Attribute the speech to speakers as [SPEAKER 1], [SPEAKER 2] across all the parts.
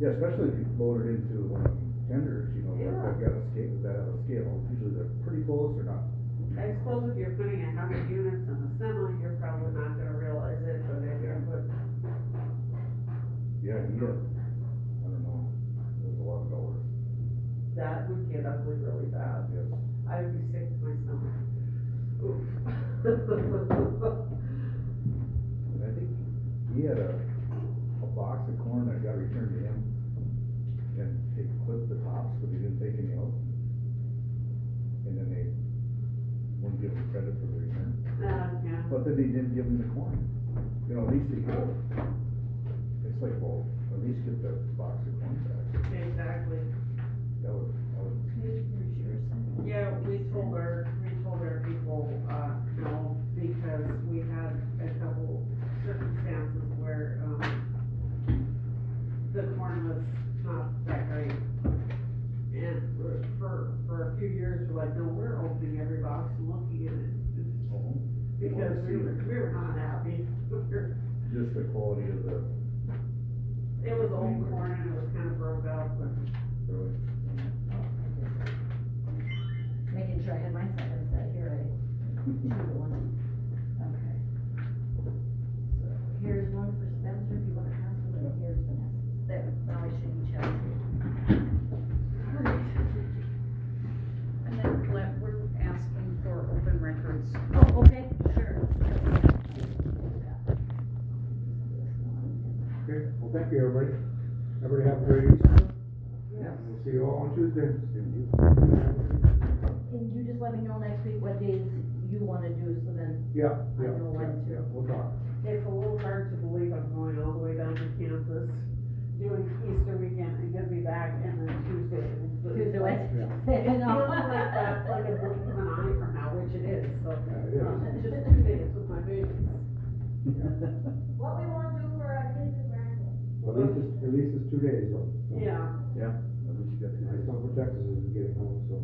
[SPEAKER 1] Yeah, especially if you load it into one of the tenders, you know, they've
[SPEAKER 2] Yeah.
[SPEAKER 1] they've got a scale, that have a scale, usually they're pretty close or not.
[SPEAKER 2] I suppose if you're putting a hundred units in assembly, you're probably not gonna realize it, but if you're putting,
[SPEAKER 1] Yeah, you get, I don't know, there's a lot of dollars,
[SPEAKER 2] that would get ugly really bad.
[SPEAKER 1] yes.
[SPEAKER 2] I would be sick to my stomach. Oof.
[SPEAKER 1] And I think he had a, a box of corn that got returned to him, and he clipped the tops, but he didn't take any out. And then they wouldn't give him credit for the return,
[SPEAKER 2] Uh, yeah,
[SPEAKER 1] but then they didn't give him the corn, you know, at least he could. It's like, well, at least get the box of corn back,
[SPEAKER 2] exactly.
[SPEAKER 1] that was, that was
[SPEAKER 2] Yeah, we told our, we told our people, uh, no, because we had a couple circumstances where, um, the corn was not that great. And for- for, for a few years, we're like, no, we're opening every box and looking at it,
[SPEAKER 1] Oh,
[SPEAKER 2] because we were, we were not happy.
[SPEAKER 1] Just the quality of the,
[SPEAKER 2] It was old corn and it was kind of broke up, but
[SPEAKER 1] really,
[SPEAKER 3] Making sure I had my seconds that here, I, two to one. Okay. So here's one for Spencer, if you wanna pass it, and here's Vanessa. There, now I should each have.
[SPEAKER 4] And then let, we're asking for open records.
[SPEAKER 3] Oh, okay, sure.
[SPEAKER 5] Okay, well, thank you, everybody. Everybody have a great Easter.
[SPEAKER 2] yeah.
[SPEAKER 5] We'll see you all on Tuesday.
[SPEAKER 3] And you just let me know next week what days you wanna do, so then,
[SPEAKER 5] Yeah,
[SPEAKER 3] I
[SPEAKER 5] yeah,
[SPEAKER 3] know
[SPEAKER 5] yeah,
[SPEAKER 3] when to.
[SPEAKER 5] yeah, we'll talk.
[SPEAKER 2] It's a little hard to believe I'm going all the way down to Kansas, doing Easter weekend, and gonna be back, and then Tuesday. and the-
[SPEAKER 3] Tuesday, Wednesday.
[SPEAKER 2] It feels like that's like a blink of an eye from now, which it is, so.
[SPEAKER 5] Yeah, it is.
[SPEAKER 2] um, it's Just two days with my babies.
[SPEAKER 6] What we wanna do for our kids is random.
[SPEAKER 5] Well, At least, it's- at least it's two days, so.
[SPEAKER 2] Yeah,
[SPEAKER 1] at least you got two
[SPEAKER 5] It's
[SPEAKER 1] days.
[SPEAKER 5] not for Texas is getting home, so.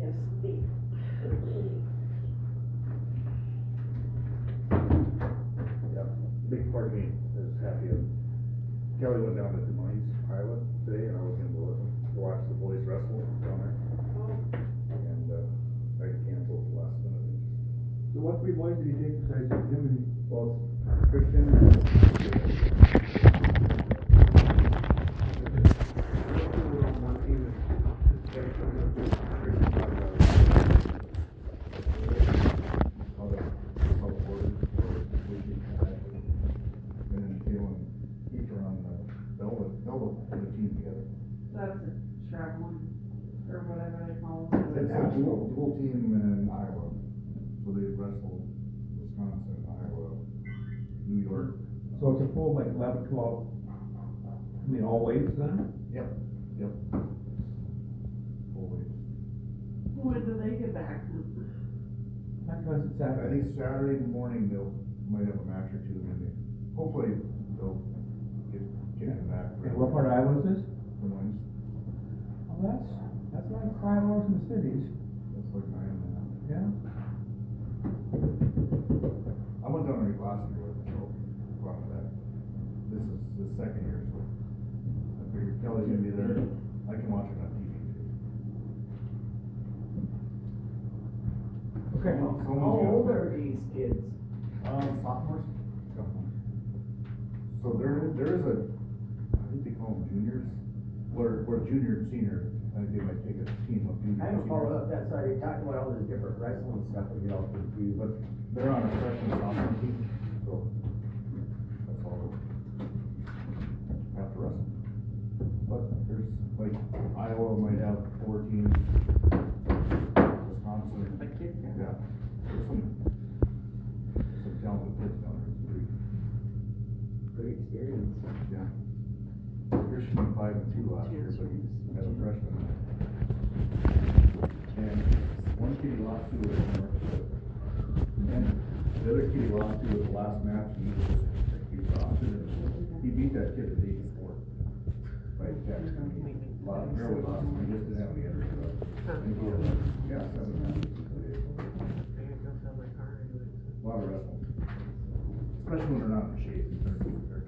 [SPEAKER 2] yes, indeed.
[SPEAKER 1] Yeah, big part of me is happy of, Kelly went down to Des Moines, Iowa today, and I was gonna go with him, to watch the boys wrestle down there,
[SPEAKER 2] Oh,
[SPEAKER 1] and, uh, I canceled the last minute.
[SPEAKER 5] So what three boys did he take besides him and?
[SPEAKER 1] Well, it's Christian. and- Christian talked about how the- how the board for we can kind of- And then Kalen and Keith are on the, Bella, Bella put a team together.
[SPEAKER 2] that's a traveling, or whatever they call it.
[SPEAKER 1] It's a dual, dual team in Iowa, so they wrestle Wisconsin, Iowa, New York.
[SPEAKER 7] So it's a full like eleven, twelve, I mean, all weights then?
[SPEAKER 1] Holy.
[SPEAKER 2] When do they get back?
[SPEAKER 7] That was it's
[SPEAKER 1] I
[SPEAKER 7] Saturday.
[SPEAKER 1] think Saturday morning they'll, might have a match or two, maybe. Hopefully they'll get, get it back.
[SPEAKER 7] And what part of Iowa is this?
[SPEAKER 1] The ones,
[SPEAKER 7] Well, that's, that's like five hours from the cities,
[SPEAKER 1] that's like nine and a half.
[SPEAKER 7] yeah?
[SPEAKER 1] I went down there last year with Joe, brought him back. This is the second year, so I figured Kelly's gonna be there, I can watch it on TV.
[SPEAKER 7] Okay.
[SPEAKER 1] Someone's
[SPEAKER 2] How
[SPEAKER 1] got-
[SPEAKER 2] old are these kids?
[SPEAKER 1] Um, sophomores? So there, there is a, I think they call them juniors, where, where junior and senior, I think they might take a team of juniors.
[SPEAKER 8] I
[SPEAKER 1] and
[SPEAKER 8] haven't followed
[SPEAKER 1] seniors.
[SPEAKER 8] up, that's why you talked about all this different wrestling stuff, we get all confused, but
[SPEAKER 1] They're on a freshman sophomore team, so that's all. After us. But there's, like, Iowa might have four teams, Wisconsin,
[SPEAKER 2] A kid.
[SPEAKER 1] yeah, there's some, there's some talented kids down there, it's pretty
[SPEAKER 8] great experience.
[SPEAKER 1] Yeah. Christian went five and two last year, but he's as a freshman. And one kid he lost to was North Dakota. And the other kid he lost to was the last match, and he was, he was off, and it- he beat that kid the day before. By Jack, I mean, lost, barely lost, he just didn't have any other stuff. And he had, like, yeah, seven matches. A lot of wrestling. Especially when they're not in shape, they're